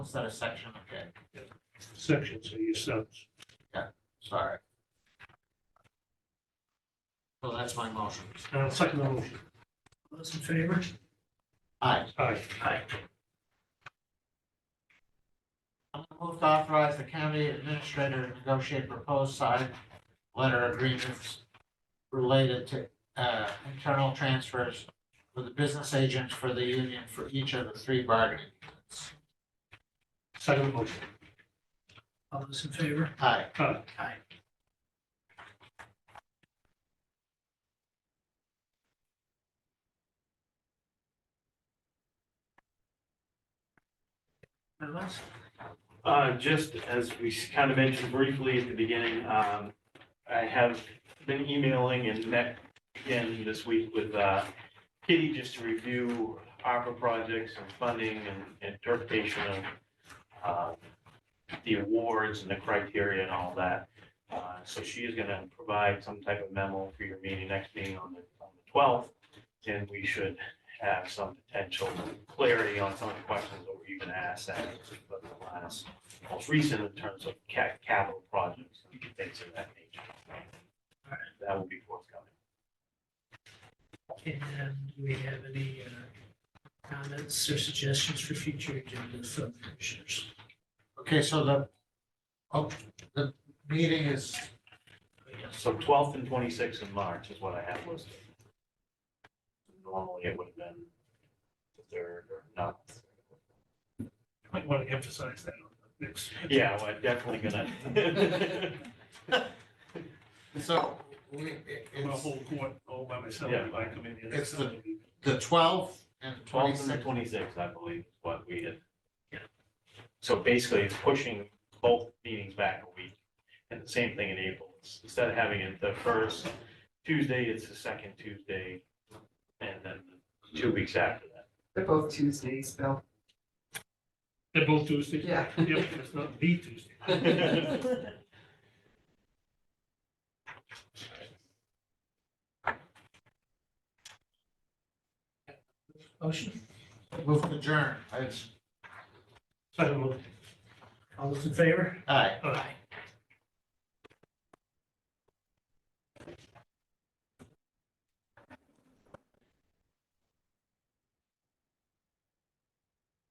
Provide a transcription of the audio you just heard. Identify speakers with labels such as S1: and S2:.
S1: Instead of section, okay,
S2: sections of your sentence.
S1: sorry. So that's my motion.
S2: Uh, second the motion.
S3: Those in favor?
S1: Aye.
S2: Aye.
S3: Aye.
S1: I'm gonna move to authorize the county administrator to negotiate proposed side letter agreements related to, uh, internal transfers for the business agents for the union for each of the three bargaining units.
S2: Second the motion.
S3: All those in favor?
S1: Aye.
S2: Aye.
S3: Aye. Anything
S4: Uh, just as we kind of mentioned briefly at the beginning, um, I have been emailing and met again this week with, uh, Kitty just to review ARPA projects and funding and interpretation of, uh, the awards and the criteria and all that. Uh, so she is gonna provide some type of memo for your meeting, next meeting on the, on the twelfth. And we should have some potential clarity on some of the questions that we're even asked at the last most recent in terms of ca- capital projects and things of that nature. That will be forthcoming.
S3: And do we have any uh, comments or suggestions for future agenda from commissioners?
S1: Okay, so the, oh, the meeting is,
S3: Yes.
S4: So twelfth and twenty-sixth in March is what I have listed. Normally it would have been the third or not.
S2: Might want to emphasize that on the next.
S4: Yeah, well, definitely gonna.
S1: so we, it-
S2: I'm gonna
S1: it's
S2: hold court all by myself
S4: Yeah.
S2: if I come in here.
S1: It's the- the twelfth and
S4: Twelfth and
S1: twenty-sixth.
S4: the twenty-sixth, I believe, is what we had. So basically, it's pushing both meetings back a week, and the same thing in April. It's- Instead of having it the first Tuesday, it's the second Tuesday, and then two weeks after that.
S5: They're both Tuesdays, Bill.
S2: They're both Tuesdays?
S5: Yeah.
S2: Yep, it's not the Tuesday.
S3: Motion?
S1: Move to adjourn. I just-
S2: Second the motion.
S3: All those in favor?
S1: Aye.
S2: Aye.